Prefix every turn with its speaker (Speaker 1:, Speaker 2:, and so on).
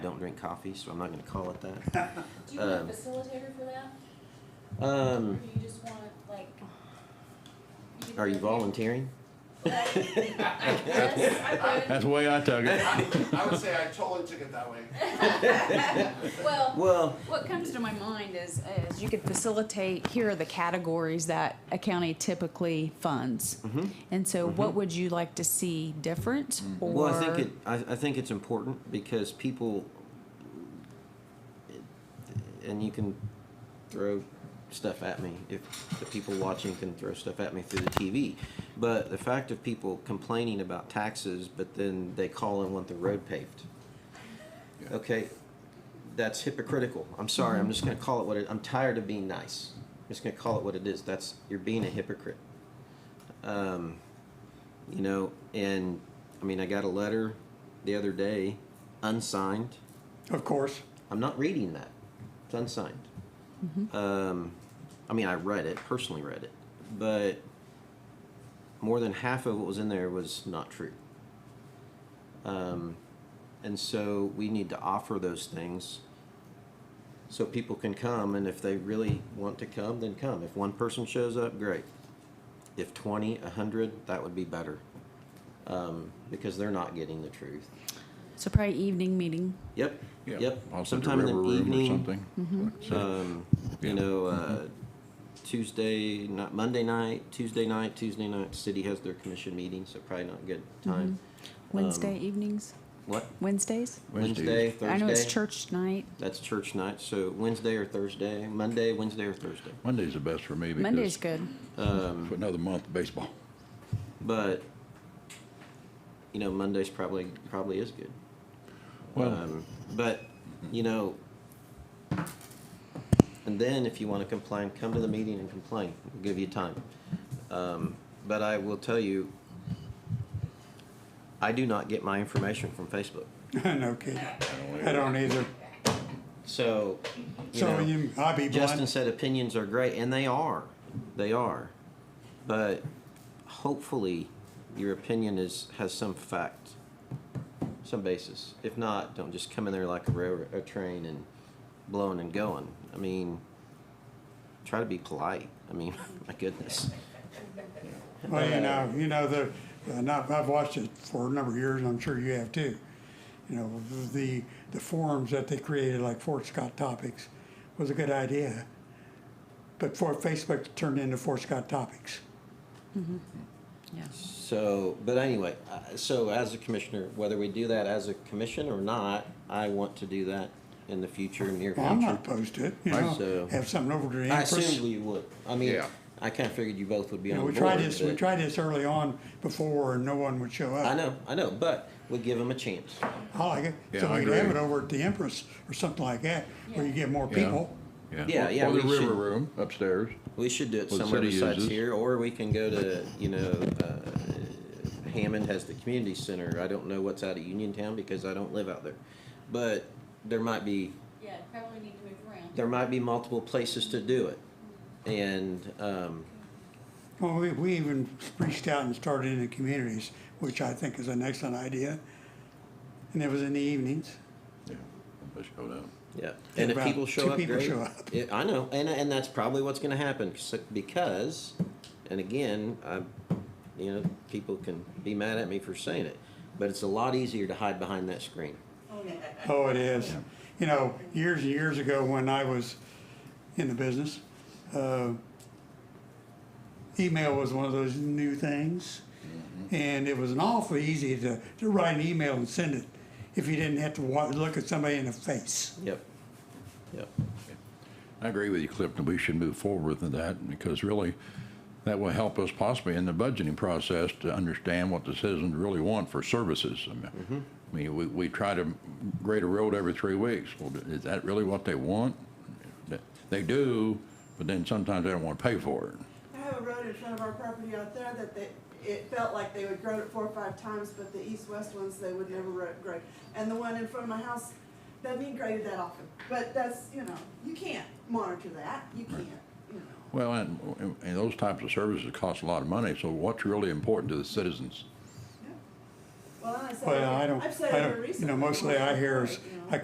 Speaker 1: don't drink coffee, so I'm not gonna call it that.
Speaker 2: Do you want
Speaker 1: Um,
Speaker 2: a facilitator for that? Or
Speaker 1: Um,
Speaker 2: do you just want, like? can
Speaker 1: are you
Speaker 2: be okay?
Speaker 1: volunteering?
Speaker 2: Yes, I
Speaker 3: That's the way I took it.
Speaker 4: I, I would say I totally took it that way.
Speaker 2: would. Well,
Speaker 1: Well,
Speaker 5: What comes to my mind is, is you could facilitate, here are the categories that a county typically funds.
Speaker 1: Mm-hmm.
Speaker 5: And so what would you like to see different or?
Speaker 1: well, I think it, I, I think it's important because people, and you can throw stuff at me if the people watching can throw stuff at me through the TV. But the fact of people complaining about taxes, but then they call and want the road paved. Okay, that's hypocritical. I'm sorry. I'm just going to call it what it. I'm tired of being nice. I'm just going to call it what it is. That's you're being a hypocrite. Um, you know, and I mean, I got a letter the other day, unsigned.
Speaker 6: Of course.
Speaker 1: I'm not reading that. It's unsigned. Um, I mean, I read it personally, read it, but more than half of what was in there was not true. Um, and so we need to offer those things so people can come, and if they really want to come, then come. If one person shows up, great. If 20, 100, that would be better um, because they're not getting the truth.
Speaker 5: So probably evening meeting.
Speaker 1: Yep.
Speaker 3: Yeah,
Speaker 1: Yep.
Speaker 3: I'll set the
Speaker 1: Sometime in
Speaker 3: river
Speaker 1: the
Speaker 3: room or
Speaker 1: evening.
Speaker 3: something. So-
Speaker 1: Um,
Speaker 3: Yeah.
Speaker 1: you know, uh, Tuesday, not Monday night, Tuesday night, Tuesday night, city has their commission meeting, so probably not a good time.
Speaker 5: Wednesday
Speaker 1: Um,
Speaker 5: evenings,
Speaker 1: What?
Speaker 5: Wednesdays?
Speaker 1: Wednesday,
Speaker 3: Wednesdays.
Speaker 1: Thursday.
Speaker 5: Mm-hmm. I know it's church night.
Speaker 1: That's church night, so Wednesday or Thursday, Monday, Wednesday or Thursday.
Speaker 3: Monday's the best for me
Speaker 5: Monday's
Speaker 3: because
Speaker 5: good.
Speaker 3: for another month of baseball.
Speaker 1: But, you know, Monday's probably, probably is good.
Speaker 3: Well,
Speaker 1: Um, but, you know, and then if you want to complain, come to the meeting and complain. We'll give you time. Um, but I will tell you, I do not get my information from Facebook.
Speaker 6: no kidding. I don't either.
Speaker 1: So, you
Speaker 6: So
Speaker 1: know,
Speaker 6: you, I'll be
Speaker 1: Justin
Speaker 6: blind.
Speaker 1: said opinions are great, and they are. They are. But hopefully, your opinion is has some fact, some basis. If not, don't just come in there like a railroad a train and blowing and going. I mean, try to be polite. I mean, my goodness.
Speaker 6: Well, you know, you know, the, and I've, I've watched it for a number of years and I'm sure you have too. You know, the, the forums that they created, like Fort Scott Topics, was a good idea. But for Facebook turned into Fort Scott Topics.
Speaker 5: Yeah.
Speaker 1: So, but anyway, uh, so as a commissioner, whether we do that as a commission or not, I want to do that in the future, near
Speaker 6: Well, I'm
Speaker 1: future.
Speaker 6: not opposed to it, you
Speaker 1: Right,
Speaker 6: know,
Speaker 1: so-
Speaker 6: have something over to the
Speaker 1: I
Speaker 6: Empress.
Speaker 1: assumed you would. I mean,
Speaker 3: Yeah.
Speaker 1: I kind of figured you both would be
Speaker 6: You
Speaker 1: on
Speaker 6: know,
Speaker 1: board.
Speaker 6: we tried this, we
Speaker 1: but-
Speaker 6: tried this early on before and no one would show up.
Speaker 1: I know, I know, but we give them a chance.
Speaker 6: I like it.
Speaker 3: Yeah,
Speaker 6: So
Speaker 3: I
Speaker 6: we'd have it
Speaker 3: agree.
Speaker 6: over at the Empress or something like that, where you get more
Speaker 3: Yeah.
Speaker 6: people.
Speaker 1: yeah, yeah,
Speaker 3: Or
Speaker 1: we
Speaker 3: the
Speaker 1: should-
Speaker 3: river room upstairs.
Speaker 1: We should do it
Speaker 3: Well, the
Speaker 1: somewhere
Speaker 3: city
Speaker 1: besides
Speaker 3: uses-
Speaker 1: here, or we can go to, you know, uh, Hammond has the community center. I don't know what's out of Uniontown because I don't live out there, but there might be
Speaker 2: yeah, probably need to move around.
Speaker 1: there might be multiple places to do it, and um,
Speaker 6: Well, we, we even reached out and started in the communities, which I think is an excellent idea. And it was in the evenings.
Speaker 3: Yeah, I showed up.
Speaker 1: Yeah, and if
Speaker 6: about
Speaker 1: people show
Speaker 6: two
Speaker 1: up,
Speaker 6: people
Speaker 1: great.
Speaker 6: show up.
Speaker 1: Yeah, I know, and and that's probably what's going to happen s- because, and again, I, you know, people can be mad at me for saying it, but it's a lot easier to hide behind that screen.
Speaker 6: Oh, it is. You know, years and years ago when I was in the business, uh, email was one of those new things. And it was an awful easy to, to write an email and send it if you didn't have to wa- look at somebody in the face.
Speaker 1: Yep. Yep.
Speaker 3: I agree with you, Clifton. We should move forward with that because really, that will help us possibly in the budgeting process to understand what the citizens really want for services. I mean, I mean, we, we try to grade a road every three weeks. Well, is that really what they want? They do, but then sometimes they don't want to pay for it.
Speaker 7: I have a road in front of our property out there that they, it felt like they would grade it four or five times, but the east-west ones, they would never ro- grade. And the one in front of my house doesn't even grade it that often, but that's, you know, you can't monitor that, you can't, you know.
Speaker 3: Well, and, and those types of services cost a lot of money, so what's really important to the citizens?
Speaker 7: Well, and I said,
Speaker 6: Well, I don't,
Speaker 7: I've said
Speaker 6: I
Speaker 7: it
Speaker 6: don't, you
Speaker 7: recently.
Speaker 6: know, mostly I hear is,